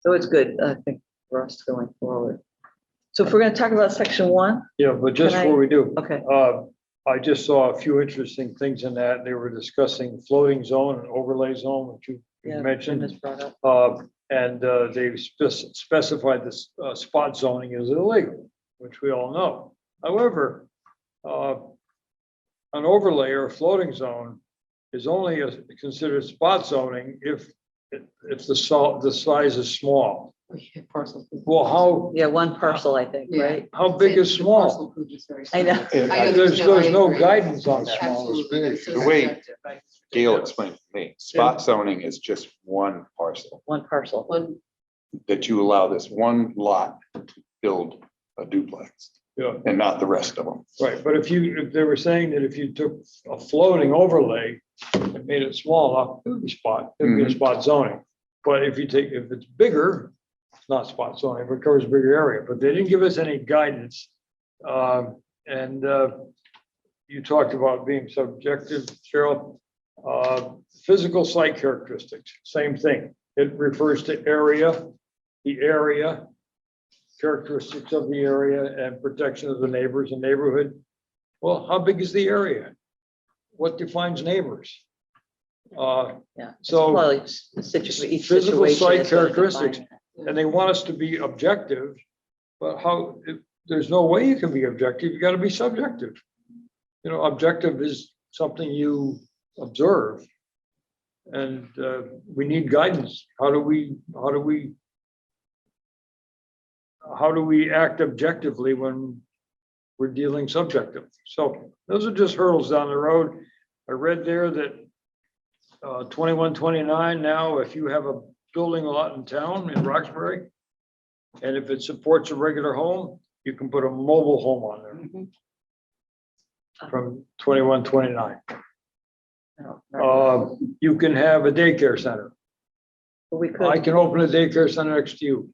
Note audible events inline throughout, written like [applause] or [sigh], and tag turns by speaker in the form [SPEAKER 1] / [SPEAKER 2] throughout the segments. [SPEAKER 1] So it's good, I think, for us going forward. So if we're going to talk about section one,
[SPEAKER 2] Yeah, but just
[SPEAKER 1] Can I-
[SPEAKER 2] before we do,
[SPEAKER 1] okay,
[SPEAKER 2] uh, I just saw a few interesting things in that. They were discussing floating zone and overlay zone, which you you
[SPEAKER 1] Yeah, Jim
[SPEAKER 2] mentioned.
[SPEAKER 1] has brought up.
[SPEAKER 2] Uh, And uh, they spec- specified this uh, spot zoning is illegal, which we all know. However, uh, an overlay or a floating zone is only a- considered spot zoning if, if the salt, the size is small.
[SPEAKER 3] Parcel. food.
[SPEAKER 2] Well, how,
[SPEAKER 1] Yeah, one parcel, I think,
[SPEAKER 3] Yeah.
[SPEAKER 1] right?
[SPEAKER 2] how big is
[SPEAKER 3] The
[SPEAKER 2] small?
[SPEAKER 3] parcel food is very
[SPEAKER 1] I know. [laughs]
[SPEAKER 3] small.
[SPEAKER 4] Yeah,
[SPEAKER 2] Uh, There's,
[SPEAKER 3] understand, I
[SPEAKER 2] there's no
[SPEAKER 3] agree.
[SPEAKER 2] guidance on that.
[SPEAKER 4] Small is
[SPEAKER 3] Absolutely.
[SPEAKER 4] big.
[SPEAKER 3] It's
[SPEAKER 4] The
[SPEAKER 3] so
[SPEAKER 4] way
[SPEAKER 3] subjective, right?
[SPEAKER 4] Gail explained to me, spot zoning is just one parcel,
[SPEAKER 1] One parcel.
[SPEAKER 3] One,
[SPEAKER 4] that you allow this one lot to build a duplex
[SPEAKER 2] Yeah.
[SPEAKER 4] and not the rest of them.
[SPEAKER 2] Right, but if you, if they were saying that if you took a floating overlay and made it small enough, it would be spot, it would be a spot zoning. But if you take, if it's bigger, it's not spot zoning, it covers a bigger area, but they didn't give us any guidance. Um, and, uh, you talked about being subjective, Cheryl. Uh, physical site characteristics, same thing. It refers to area, the area, characteristics of the area and protection of the neighbors and neighborhood. Well, how big is the area? What defines neighbors? Uh,
[SPEAKER 1] Yeah. it's
[SPEAKER 2] So-
[SPEAKER 1] probably s- situ- each
[SPEAKER 2] Physical
[SPEAKER 1] situation
[SPEAKER 2] site
[SPEAKER 1] is gonna define
[SPEAKER 2] characteristics.
[SPEAKER 1] that.
[SPEAKER 2] and they want us to be objective, but how, if- there's no way you can be objective, you gotta be subjective. You know, objective is something you observe. And uh, we need guidance. How do we, how do we? How do we act objectively when we're dealing subjectively? So those are just hurdles down the road. I read there that uh, twenty-one, twenty-nine now, if you have a building lot in town in Roxbury. And if it supports a regular home, you can put a mobile home on there
[SPEAKER 1] Mhm. Mm-hmm.
[SPEAKER 2] from twenty-one, twenty-nine.
[SPEAKER 1] No, right.
[SPEAKER 2] Uh, you can have a daycare center.
[SPEAKER 1] But We
[SPEAKER 2] I
[SPEAKER 1] could,
[SPEAKER 2] can open a daycare center next to you.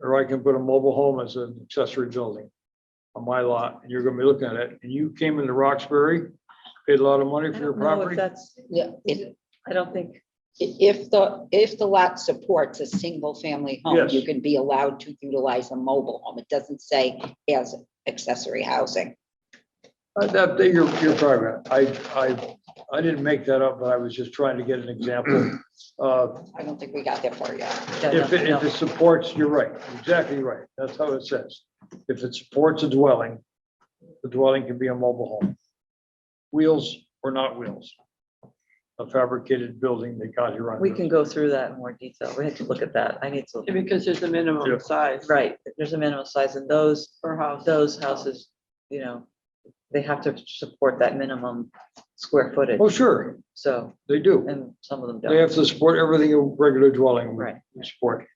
[SPEAKER 2] Or I can put a mobile home as an accessory building on my lot, and you're gonna be looking at it, and you came into Roxbury, paid a lot of money
[SPEAKER 1] I
[SPEAKER 2] for your
[SPEAKER 1] don't know if
[SPEAKER 2] property.
[SPEAKER 1] that's,
[SPEAKER 5] Yeah, if,
[SPEAKER 1] I don't think,
[SPEAKER 5] if the, if the lot supports a single-family home,
[SPEAKER 2] Yes.
[SPEAKER 5] you can be allowed to utilize a mobile home. It doesn't say as accessory housing.
[SPEAKER 2] Uh, That, that- you're, you're probably right. I, I, I didn't make that up, but I was just trying to get an example. Uh,
[SPEAKER 5] I don't think we got that far yet.
[SPEAKER 1] yeah,
[SPEAKER 2] If, it-
[SPEAKER 1] no,
[SPEAKER 2] if it supports, you're right, exactly right. That's how it says. If it supports a dwelling, the dwelling can be a mobile home. Wheels or not wheels. A fabricated building that got here
[SPEAKER 1] no.
[SPEAKER 2] on.
[SPEAKER 1] we can go through that in more detail. We had to look at that. I need to,
[SPEAKER 3] because there's a
[SPEAKER 2] Yeah.
[SPEAKER 3] minimum size.
[SPEAKER 1] right, there's a minimum size and those,
[SPEAKER 3] Per house.
[SPEAKER 1] those houses, you know, they have to support that minimum square footage.
[SPEAKER 2] Oh, sure,
[SPEAKER 1] So,
[SPEAKER 2] they do.
[SPEAKER 1] and some of them
[SPEAKER 2] They
[SPEAKER 1] don't.
[SPEAKER 2] have to support everything a regular dwelling would
[SPEAKER 1] Right.
[SPEAKER 2] support.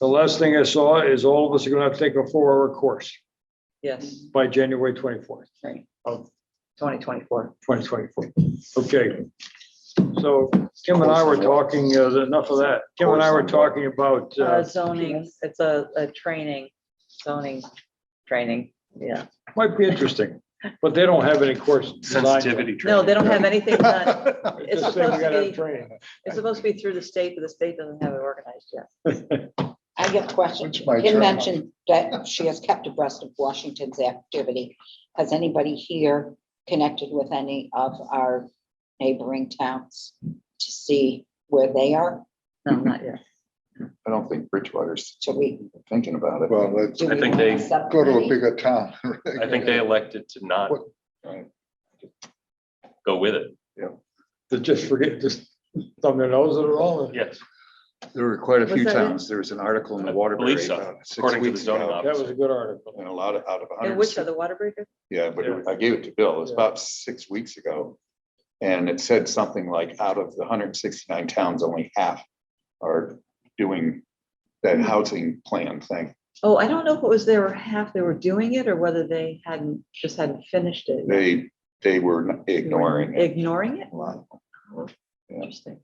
[SPEAKER 2] The last thing I saw is all of us are gonna have to take a four-hour course
[SPEAKER 1] Yes,
[SPEAKER 2] by January twenty-fourth.
[SPEAKER 1] twenty twenty-four.
[SPEAKER 2] twenty twenty-four. Okay. So Kim and I were talking, uh, enough of that. Kim and I were talking about, uh,
[SPEAKER 1] Zoning, it's a, a training, zoning, training, yeah.
[SPEAKER 2] might be interesting, but they don't have any course. designed.
[SPEAKER 1] No, they don't have
[SPEAKER 2] [laughs]
[SPEAKER 1] anything done. It's
[SPEAKER 2] Just saying we
[SPEAKER 1] supposed to
[SPEAKER 2] gotta have
[SPEAKER 1] be,
[SPEAKER 2] training.
[SPEAKER 1] it's supposed to be through the state, but the state doesn't have it organized yet.
[SPEAKER 5] I have a question.
[SPEAKER 4] Which my
[SPEAKER 5] Kim
[SPEAKER 4] turn.
[SPEAKER 5] mentioned that she has kept abreast of Washington's activity. Has anybody here connected with any of our neighboring towns to see where they are?
[SPEAKER 1] No, not
[SPEAKER 2] [laughs]
[SPEAKER 1] yet.
[SPEAKER 4] I don't think Bridgewater's
[SPEAKER 5] Should we?
[SPEAKER 4] thinking about it.
[SPEAKER 6] Well, let's
[SPEAKER 5] do we
[SPEAKER 7] I think
[SPEAKER 5] want
[SPEAKER 7] they-
[SPEAKER 5] subcommittee?
[SPEAKER 6] go to a bigger
[SPEAKER 4] [laughs]
[SPEAKER 6] town.
[SPEAKER 7] I think they elected to not uh,
[SPEAKER 4] Right.
[SPEAKER 7] go with it.
[SPEAKER 2] To just forget, just thumb their nose at it all.
[SPEAKER 7] Yes,
[SPEAKER 4] There were quite a
[SPEAKER 1] Was
[SPEAKER 4] few
[SPEAKER 1] that it?
[SPEAKER 4] towns. There was an article in the
[SPEAKER 7] I believe
[SPEAKER 4] Waterbury
[SPEAKER 7] so,
[SPEAKER 4] about six
[SPEAKER 7] according to the
[SPEAKER 4] weeks
[SPEAKER 7] zoning
[SPEAKER 4] ago.
[SPEAKER 2] That was a good article.
[SPEAKER 4] And a lot of, out of a
[SPEAKER 1] And
[SPEAKER 4] hundred.
[SPEAKER 1] which are the water breakers?
[SPEAKER 4] Yeah, but it- I gave it to Bill. It was about six weeks ago. And it said something like out of the hundred and sixty-nine towns, only half are doing that housing plan thing.
[SPEAKER 1] Oh, I don't know if it was they were half, they were doing it or whether they hadn't, just hadn't finished it.
[SPEAKER 4] They, they were ignoring it.
[SPEAKER 1] Ignoring it?
[SPEAKER 4] a lot.
[SPEAKER 1] Interesting.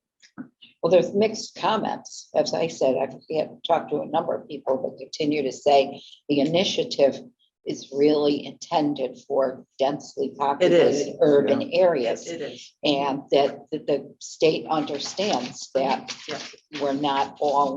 [SPEAKER 5] Well, there's mixed comments. As I said, I've had- talked to a number of people that continue to say the initiative is really intended for densely populated urban areas.
[SPEAKER 1] It is.
[SPEAKER 5] And that, that the state understands that
[SPEAKER 1] Yeah.
[SPEAKER 5] we're not all